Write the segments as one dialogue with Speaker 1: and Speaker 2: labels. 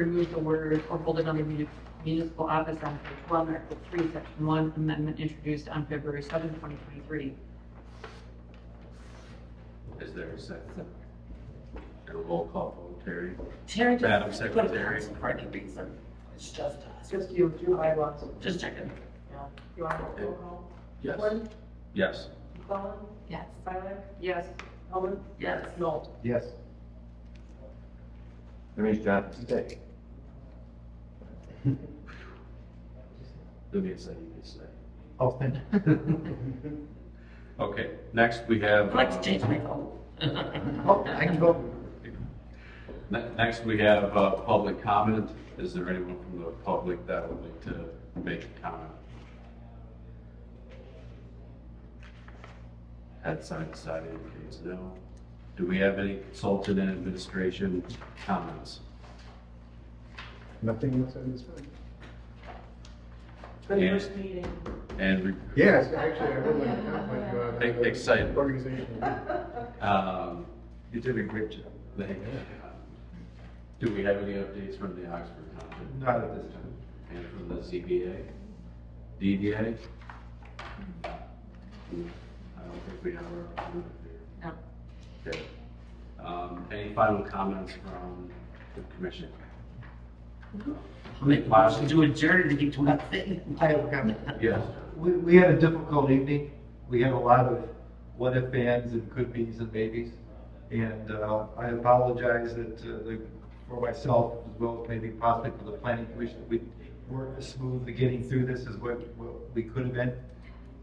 Speaker 1: remove the word or hold another muni- municipal office on page one, Article three, section one, amendment introduced on February seventh, twenty twenty-three.
Speaker 2: Is there a second? And a roll call vote, Terry?
Speaker 3: Terry just.
Speaker 2: Madam
Speaker 3: put
Speaker 2: Secretary.
Speaker 3: it on For any reason, it's just us,
Speaker 4: Just you, two bylaws.
Speaker 3: just checking.
Speaker 4: You want to roll call?
Speaker 2: Yes.
Speaker 4: Gordon,
Speaker 2: Yes.
Speaker 4: McClellan,
Speaker 3: Yes.
Speaker 4: Siler,
Speaker 1: Yes.
Speaker 4: Hellman,
Speaker 3: Yes.
Speaker 4: Noel.
Speaker 5: Yes. That means John today.
Speaker 2: Let me say, you can say.
Speaker 5: Oh, thank you.
Speaker 2: Okay, next we have. uh,
Speaker 3: I'd like to change my vote.
Speaker 5: Oh, I can go.
Speaker 2: Ne- Next, we have uh, public comment. Is there anyone from the public that would like to make a comment? Head side to side indicates no. Do we have any consultant and administration comments?
Speaker 5: Nothing else on this one?
Speaker 4: For the
Speaker 2: Yeah.
Speaker 4: first meeting.
Speaker 2: And re-
Speaker 5: Yes, actually, I would like to compliment you on
Speaker 2: Ex-
Speaker 5: the
Speaker 2: excited.
Speaker 5: Organization.
Speaker 2: um,
Speaker 5: You did a great job.
Speaker 2: they- um, do we have any updates from the Oxford conference
Speaker 5: Not at this time.
Speaker 2: and from the ZBA, DDA? Mm, I don't think we have
Speaker 1: No.
Speaker 2: our. Okay. Um, Any final comments from the commission?
Speaker 3: I'll Make a motion to adjourn to get to that thing.
Speaker 6: I have a comment.
Speaker 2: Yes.
Speaker 6: We, we had a difficult evening. We had a lot of what if ands and could be's and maybes. And uh, I apologize that, uh, the- for myself, as well as maybe possibly for the planning commission, that we weren't as smooth at getting through this as what, what we could have been.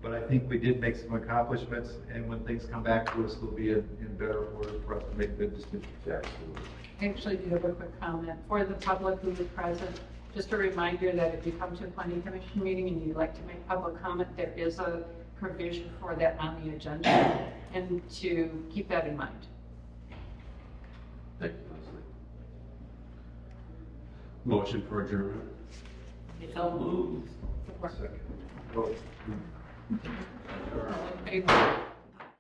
Speaker 6: But I think we did make some accomplishments, and when things come back to us, they'll be in, in better order for us to make good decisions.
Speaker 2: Absolutely.
Speaker 1: Actually, do you have a quick comment for the public who is present? Just a reminder that if you come to a planning commission meeting and you'd like to make public comment, there is a provision for that on the agenda, and to keep that in mind.
Speaker 2: Thank you, Leslie. Motion for adjournment?
Speaker 3: So moved.
Speaker 1: Support.
Speaker 5: Well,
Speaker 1: All in favor?